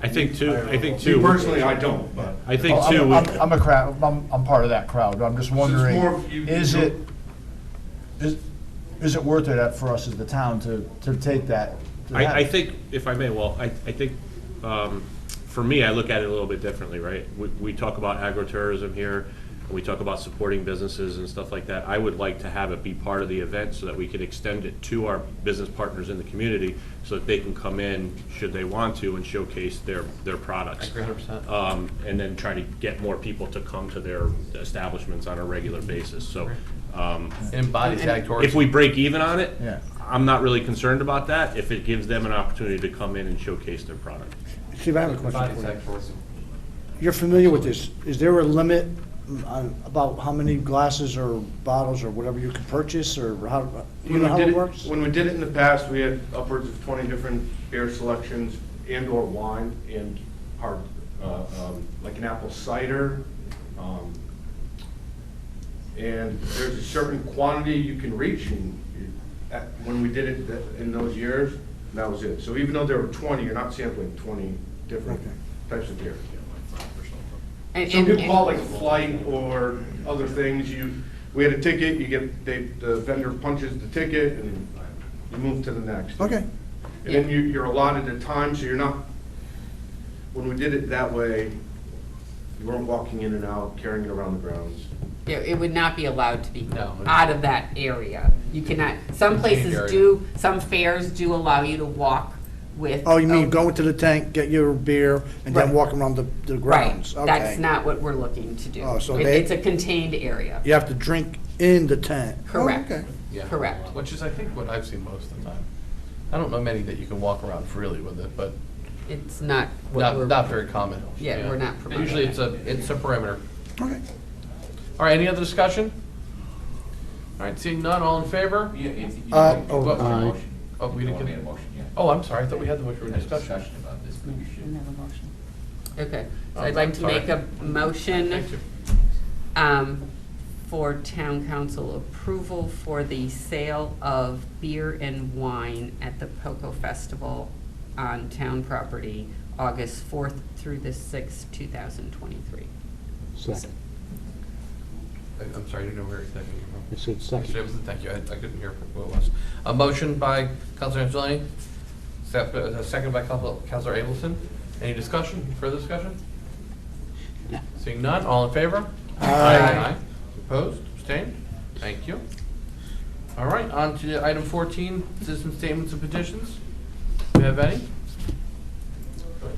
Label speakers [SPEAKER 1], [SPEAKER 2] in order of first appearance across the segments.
[SPEAKER 1] I think too, I think
[SPEAKER 2] Me
[SPEAKER 1] too,
[SPEAKER 2] personally, I don't, but.
[SPEAKER 1] I think
[SPEAKER 3] I'm-
[SPEAKER 1] too,
[SPEAKER 3] I'm
[SPEAKER 1] we-
[SPEAKER 3] I'm a crowd, I'm, I'm part of that crowd, I'm just wondering,
[SPEAKER 2] more of you-
[SPEAKER 3] is
[SPEAKER 2] you-
[SPEAKER 3] it, is, is it worth it at- for us as the town to, to take that? to
[SPEAKER 1] I,
[SPEAKER 3] that?
[SPEAKER 1] I think, if I may, well, I, I think, um, for me, I look at it a little bit differently, right? We, we talk about agritourism here, and we talk about supporting businesses and stuff like that. I would like to have it be part of the event so that we could extend it to our business partners in the community so that they can come in, should they want to, and showcase their, their products. Um, and then try to get more people to come to their establishments on a regular basis, so, um,
[SPEAKER 4] It embodies ag tourism.
[SPEAKER 1] if we break even on it,
[SPEAKER 3] Yeah.
[SPEAKER 1] I'm not really concerned about that, if it gives them an opportunity to come in and showcase their product.
[SPEAKER 5] Steve, I have a question
[SPEAKER 4] Embodies
[SPEAKER 5] for you.
[SPEAKER 4] ag tourism.
[SPEAKER 5] You're familiar with this. Is there a limit on, about how many glasses or bottles or whatever you can purchase, or how, do you know
[SPEAKER 2] When we
[SPEAKER 5] how
[SPEAKER 2] did
[SPEAKER 5] it
[SPEAKER 2] it-
[SPEAKER 5] works?
[SPEAKER 2] When we did it in the past, we had upwards of 20 different beer selections and/or wine and hard, uh, um, like an apple cider. um, And there's a certain quantity you can reach and you- at- when we did it th- in those years, that was it. So even though there were 20, you're not sampling 20 different types of beer.
[SPEAKER 6] And-
[SPEAKER 2] So
[SPEAKER 6] and-
[SPEAKER 2] people call it like a flight or other things, you, we had a ticket, you get, they, the vendor punches the ticket and you move to the next.
[SPEAKER 5] Okay,
[SPEAKER 2] And then you, you're allotted a time, so you're not, when we did it that way, you weren't walking in and out, carrying it around the grounds.
[SPEAKER 6] It it would not be allowed to be
[SPEAKER 4] No.
[SPEAKER 6] out of that area. You cannot, some places
[SPEAKER 4] area.
[SPEAKER 6] do, some fairs do allow you to walk with.
[SPEAKER 5] oh, you
[SPEAKER 6] a-
[SPEAKER 5] mean go into the tank, get your beer, and then
[SPEAKER 6] Right.
[SPEAKER 5] walk around the, the
[SPEAKER 6] Right,
[SPEAKER 5] grounds?
[SPEAKER 6] that's
[SPEAKER 5] Okay.
[SPEAKER 6] not what we're looking to do.
[SPEAKER 5] Oh, so
[SPEAKER 6] It-
[SPEAKER 5] they-
[SPEAKER 6] It's a contained area.
[SPEAKER 5] You have to drink in the tent? Oh,
[SPEAKER 6] Correct.
[SPEAKER 5] okay.
[SPEAKER 4] Yeah.
[SPEAKER 6] Correct.
[SPEAKER 4] Which is, I think, what I've seen most of the time. I don't know many that you can walk around freely with it, but
[SPEAKER 6] It's not what
[SPEAKER 4] not,
[SPEAKER 6] we're.
[SPEAKER 4] not very common.
[SPEAKER 6] Yeah, we're not promoting
[SPEAKER 4] Usually it's
[SPEAKER 6] that.
[SPEAKER 4] a, it's a perimeter.
[SPEAKER 5] Okay.
[SPEAKER 4] All right, any other discussion? All right, seeing none, all in favor?
[SPEAKER 7] Yeah, if you-
[SPEAKER 5] Uh,
[SPEAKER 7] you-
[SPEAKER 5] oh,
[SPEAKER 7] what-
[SPEAKER 5] aye.
[SPEAKER 4] Oh, we didn't
[SPEAKER 7] You made
[SPEAKER 4] get,
[SPEAKER 7] a motion, yeah.
[SPEAKER 4] oh, I'm sorry, I thought we had the motion
[SPEAKER 7] We
[SPEAKER 4] for
[SPEAKER 7] had a
[SPEAKER 4] discussion.
[SPEAKER 7] discussion about this, but you should.
[SPEAKER 6] Okay, so
[SPEAKER 4] Oh,
[SPEAKER 6] I'd like to
[SPEAKER 4] sorry.
[SPEAKER 6] make a motion
[SPEAKER 4] Thank you.
[SPEAKER 6] um, for town council approval for the sale of beer and wine at the Poco Festival on town property, August 4th through the 6th, 2023.
[SPEAKER 4] I- I'm sorry, I didn't know where exactly you were from.
[SPEAKER 8] I said
[SPEAKER 4] Mr.
[SPEAKER 8] second.
[SPEAKER 4] Ableton, thank you, I I couldn't hear what it was. A motion by Counselor Angelini, sep- uh, second by Counsel- Counselor Ableton. Any discussion, further discussion? Seeing none, all in favor? Aye. Opposed, abstained? Thank you. All right, on to item 14, citizen statements and petitions. Do we have any?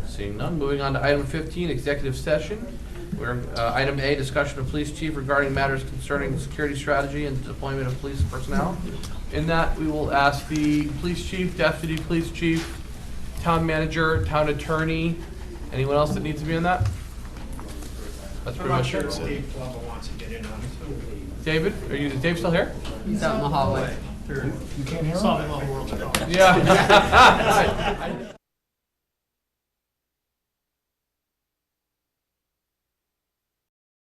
[SPEAKER 4] Seeing none, moving on to item 15, executive session, where, uh, item A, discussion of police chief regarding matters concerning the security strategy and deployment of police personnel. In that, we will ask the police chief, deputy police chief, town manager, town attorney, anyone else that needs to be in that? That's pretty much it.
[SPEAKER 9] wants to get in on it.
[SPEAKER 4] David, are you, is Dave still here?
[SPEAKER 6] He's out in the hallway.
[SPEAKER 3] You can't hear him?
[SPEAKER 9] Saw him on World Cup.
[SPEAKER 4] Yeah.